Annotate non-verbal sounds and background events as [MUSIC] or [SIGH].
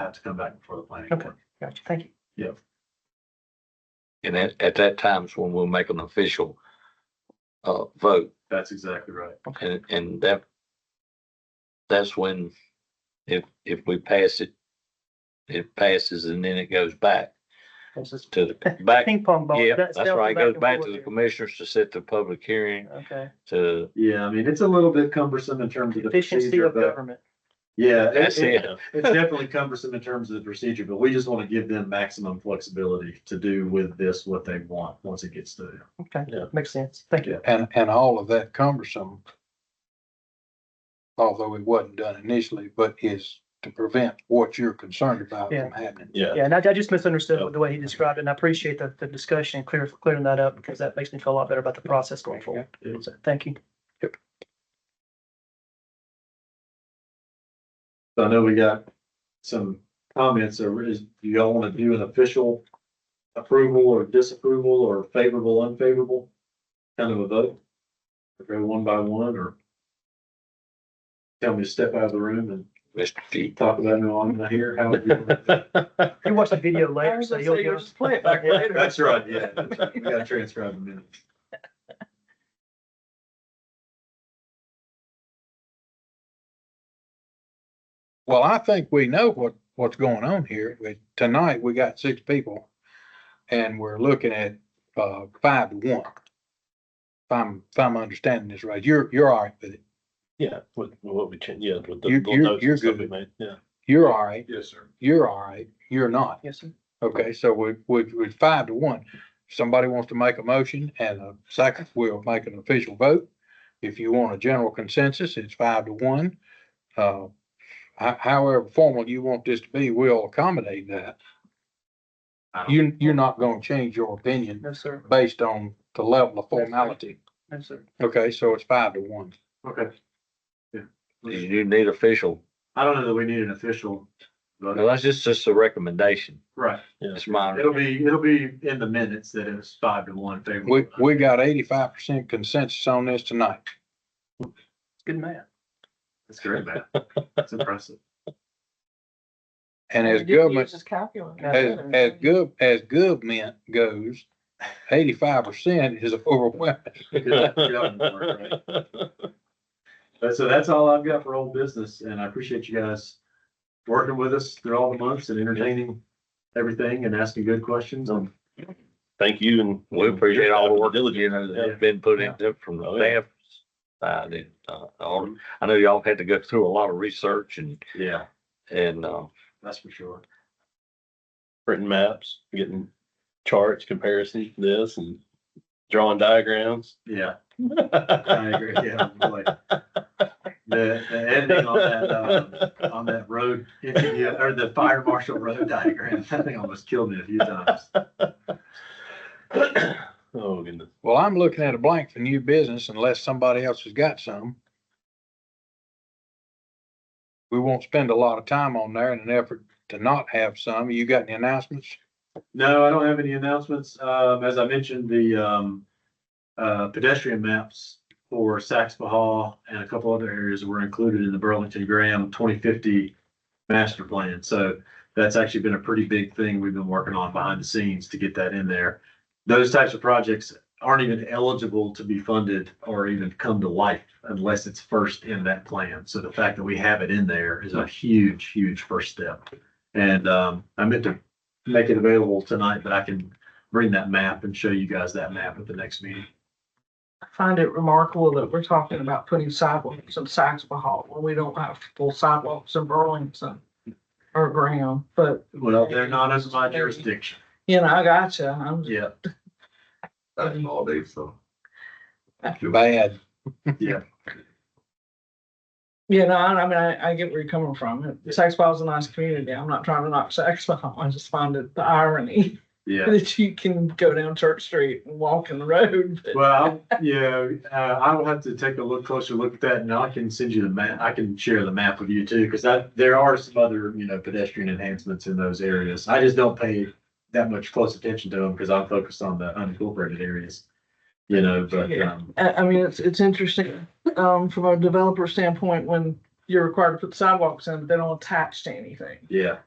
have to come back before the planning Okay. board. Gotcha. Thank you. And at, at that time is when we'll make an official uh, vote That's exactly right. and, and that that's when if, if we pass it, it passes and then it goes back This is to the, back. Ping pong ball. Yeah, That's that's right. It dealt goes with back and to the forth commissioners to set the public hearing here. Okay. to, Yeah, I mean, it's a little bit cumbersome in terms of the Efficiency procedure, of but government. yeah. it- that's it. [LAUGHS] It's definitely cumbersome in terms of the procedure, but we just want to give them maximum flexibility to do with this what they want, once it gets to them. Okay. Yeah. Makes sense. Thank you. And, and all of that cumbersome, although it wasn't done initially, but is to prevent what you're concerned about Yeah. from happening. Yeah, and I, I just misunderstood with the way he described it and I appreciate the, the discussion and clear, clearing that up because that makes me feel a lot better about the process going forward. It's- So, thank you. So I know we got some comments, or is, do y'all want to do an official approval or disapproval or favorable, unfavorable? Kind of a vote? Or Go one by one, or tell me to step out of the room and Mr. [LAUGHS] G. talk about it on here, how would [LAUGHS] you? You watch the video later, so you'll. get- That's right, [LAUGHS] yeah, we gotta transcribe the minutes. Well, I think we know what, what's going on here. We- Tonight, we got six people and we're looking at, uh, five to one. If I'm, if I'm understanding this right, you're, you're all right with it. Yeah, with with what we change, yeah, with the You're- little you're- notes you're and stuff we good. made, yeah. You're all right. Yes, sir. You're all right. You're not. Yes, sir. Okay, so we, we, we five to one. If Somebody wants to make a motion and a second, we'll make an official vote. If you want a general consensus, it's five to one. Uh, ho- however formal you want this to be, we'll accommodate that. You, you're not gonna change your opinion No, sir. based on the level of formality. No, sir. Okay, so it's five to one. Okay. You need official. I don't know that we need an official, Well, but, that's just, just a recommendation. right, It's my, it'll be, it'll be in the minutes that it was five to one favorable. We, we got eighty-five percent consensus on this tonight. Good man. That's great, [LAUGHS] man, that's impressive. And as government, as, That's as gov, as government goes, eighty-five percent is [LAUGHS] overwhelming. Good job, Mark, right? [LAUGHS] But so that's all I've got for old business and I appreciate you guys working with us through all the months and entertaining everything and asking good questions. Um, Thank you and. we appreciate all the work, Diligent. you know, that's been put into from the Oh, yeah. Mm-hmm. staff. side and, uh, all- I know y'all had to go through a lot of research and, Yeah, and, uh, that's for sure. Printing maps, getting charts, comparisons, this and drawing diagrams. [LAUGHS] Yeah, I agree. Yeah. like, The, the ending on that, um, on that road, [LAUGHS] interview, or the fire marshal road diagram, [LAUGHS] that thing almost killed me a few times. Oh, goodness. Well, I'm looking at a blank for new business unless somebody else has got some. We won't spend a lot of time on there in an effort to not have some. You got any announcements? No, I don't have any announcements. Um, as I mentioned, the, um, uh, pedestrian maps for Saxbahaw and a couple other areas were included in the Burlington Graham twenty fifty master plan. So that's actually been a pretty big thing we've been working on behind the scenes to get that in there. Those types of projects aren't even eligible to be funded or even come to life unless it's first in that plan. So the fact that we have it in there is a huge, huge first step. And, um, I meant to make it available tonight, but I can bring that map and show you guys that map at the next meeting. I find it remarkable that we're talking about putting sidewalks in Saxbahaw when we don't have full sidewalks in Burlington or Graham, but, Well, they're not under my jurisdiction. you know, I gotcha. I'm, Yeah. That's all day, so. Bad. you know, I I mean, I, I get where you're coming from. Saxbahaw's a nice community. I'm not trying to knock [LAUGHS] Saxbahaw. I just find it the irony [LAUGHS] Yeah, that you can go down Church Street and walk in the road. but- well, I'll- yeah, uh, I will have to take a look closer look at that and I can send you the map. I can share the map with you too, because I, there are some other, you know, pedestrian enhancements in those areas. I just don't pay that much close attention to them because I'm focused on the unincorporated areas. You know, but, Yeah. um, I, I mean, it's, it's interesting, um, from a developer standpoint, when you're required to put sidewalks in, but they don't attach to anything. yeah,